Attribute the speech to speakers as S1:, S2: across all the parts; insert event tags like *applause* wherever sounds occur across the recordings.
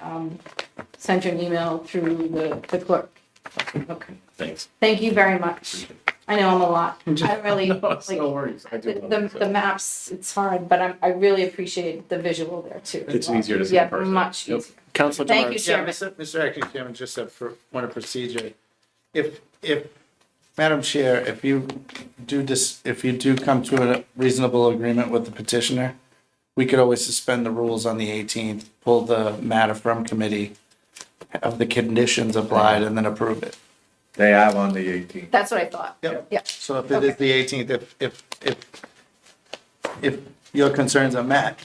S1: um, sent you an email through the, the clerk. Okay.
S2: Thanks.
S1: Thank you very much. I know I'm a lot.
S2: *laughs*
S1: I really, *laughs* like, the,
S2: worries. I do. love
S1: the,
S2: it,
S1: the
S2: so.
S1: maps, it's hard, but I'm, I really appreciate the visual there too. as
S2: It's
S1: well.
S2: easier to see in
S1: Yeah,
S2: person.
S1: much
S2: Yep.
S1: easier.
S3: Counselor
S1: Thank you,
S3: Demers.
S1: Chairman.
S4: Yeah, Mr. Mr. Acting Chairman, just a for- point of procedure. If, if, Madam Chair, if you do dis, if you do come to a reasonable agreement with the petitioner, we could always suspend the rules on the eighteenth, pull the matter from committee, have the conditions applied, and then approve it.
S5: They have on the eighteenth.
S1: That's what I thought. Yeah.
S4: So if it is the eighteenth, if, if, if, if your concerns are met,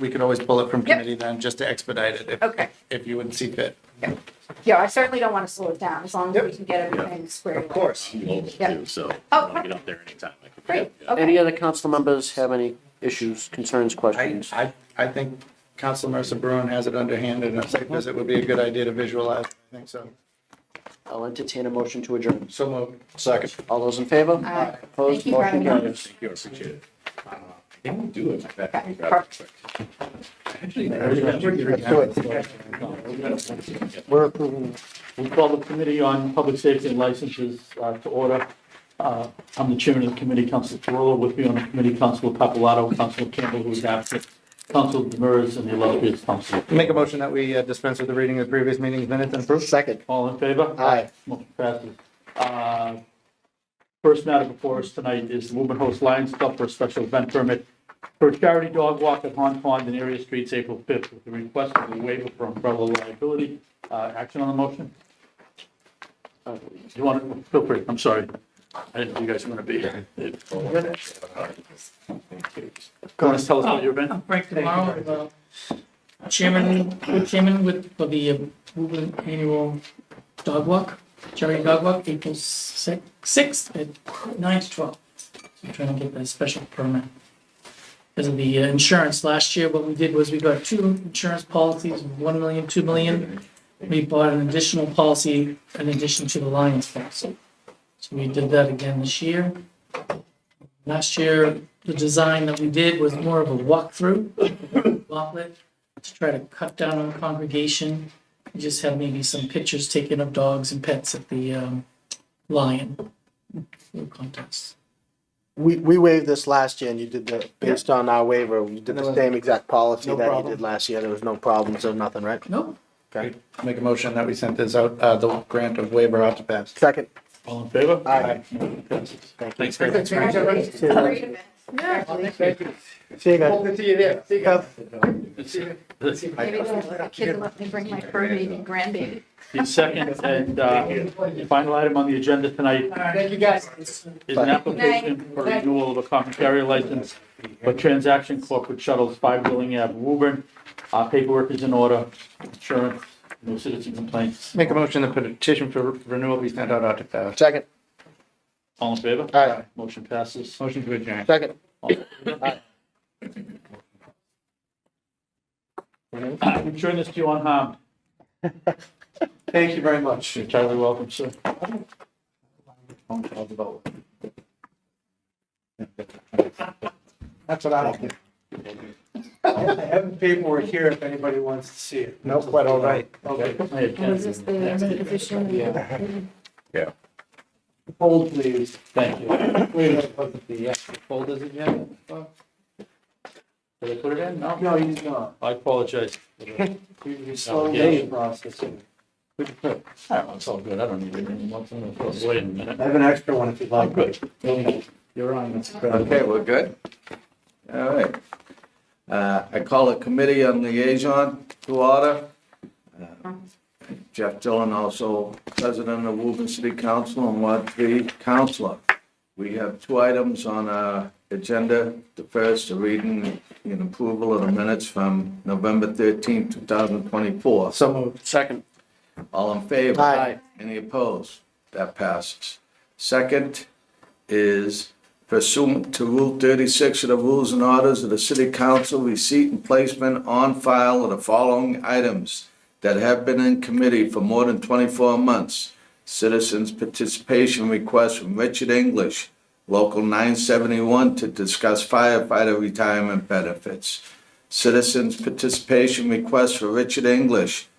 S4: we could always pull it from committee then, just to expedite it. if-
S1: Okay.
S4: If you would see fit.
S1: Yeah, I certainly don't want to slow it down as long as we can get everything squared. away.
S2: Global
S1: Yeah.
S2: too, so
S1: Oh,
S2: I'll get up there anytime. I can.
S1: Great,
S2: Yeah.
S1: okay.
S3: Any other council members have any issues, concerns,
S4: I,
S3: questions?
S4: I, I think Council Mercer Bruin has it underhand and a site visit would be a good idea to visualize. I think so.
S3: I'll entertain a motion to adjourn.
S4: So moved. Second.
S3: All those in favor?
S1: Aye.
S3: Opposed,
S1: Thank you very
S3: motion
S1: much.
S3: carries.
S2: Thank you, I appreciate it. Uh, I can do it. I can grab it
S1: Perfect.
S2: quick. Actually, I remember-
S6: We're approving, we call the Committee on Public Safety and Licenses uh, to order. Uh, I'm the chairman of the committee, Council Ferraro, with me on the committee, Council Papalato, Council Campbell, who is absent, Council Demers, and the illustrious Council.
S4: Make a motion that we uh, dispense with the reading of the previous meeting's minutes and approve.
S3: Second.
S6: All in favor?
S3: Aye.
S6: Motion passes. Uh, First matter before us tonight is the Woburn Host Lions Club for a special event permit for a charity dog walk at Hon Pond in area streets April 5th with the request of a waiver for umbrella liability. Uh, Action on the motion? Uh, You want to, feel free, I'm sorry. I didn't know you guys were going to be here. Want to tell us about your event?
S7: Right tomorrow, uh, chairman, co-chairman with, for the uh, Woburn Annual Dog Walk, charity dog walk, April sixth, sixth at nine to twelve. So we're trying to get that special permit. Because of the uh, insurance, last year what we did was we got two insurance policies, one million, two million. We bought an additional policy in addition to the Lions policy. So we did that again this year. Last year, the design that we did was more of a walkthrough, walklet, to try to cut down on congregation. We just had maybe some pictures taken of dogs and pets at the um, lion contest.
S8: We, we waived this last year and you did the, based on our waiver, you did the same exact policy
S4: No
S8: that you
S4: problem.
S8: did last year. There was no problems or nothing, right?
S7: Nope,
S4: Make a motion that we sent this out, uh, the grant of waiver out to pass.
S8: Second.
S6: All in favor?
S8: Aye.
S6: Motion passes.
S3: Thanks.
S1: Congratulations. Great event.
S8: See you guys.
S1: Maybe the kid let me bring my fur baby and grandbaby.
S6: The second and uh, final item on the agenda tonight
S7: thank you guys.
S6: is an application for renewal of a common carrier license for transaction corporate shuttles, five Willing Ave, Woburn. Our paperwork is in order, insurance, no citizen complaints.
S4: Make a motion that petition for renewal be sent out out to pass.
S8: Second,
S6: All in favor?
S8: Aye.
S6: Motion passes.
S4: Motion to adjourn.
S8: second.
S6: Return this to you unharmed.
S4: Thank you very much.
S6: You're entirely welcome, sir.
S4: That's what I like. I have paperwork here if anybody wants to see it. No, quite all right. Okay.
S6: Hey, Ken,
S1: Was this the executive edition? *laughs*
S4: Hold, please.
S6: Thank you.
S4: Wait, a minute. the actual folders again?
S6: Did I put it in? No?
S4: No, he's not.
S6: I
S4: *laughs*
S6: apologize.
S4: We- we
S6: No,
S4: slowed
S6: yeah.
S4: down the
S6: *laughs*
S4: process.
S6: I don't know, It's all good. I don't need it anymore. It's in the- Wait a minute.
S4: I have an extra one if you'd like.
S6: I'm good.
S4: You're on, Mr. President.
S5: Okay, we're good? All right. Uh, I call a committee on liaison to order. Uh, Jeff Dillon, also president of Woburn City Council and Ward Three Councilor. We have two items on our agenda. The first, a reading and approval of the minutes from November thirteenth, two thousand twenty-four.
S4: So moved.
S3: Second.
S5: All in favor?
S8: Aye.
S5: Any opposed? That passes. Second is pursuant to Rule 36 of the Rules and Orders of the City Council, receipt and placement on file of the following items that have been in committee for more than 24 months. Citizens participation request from Richard English, Local 971, to discuss firefighter retirement benefits. Citizens participation request for Richard English,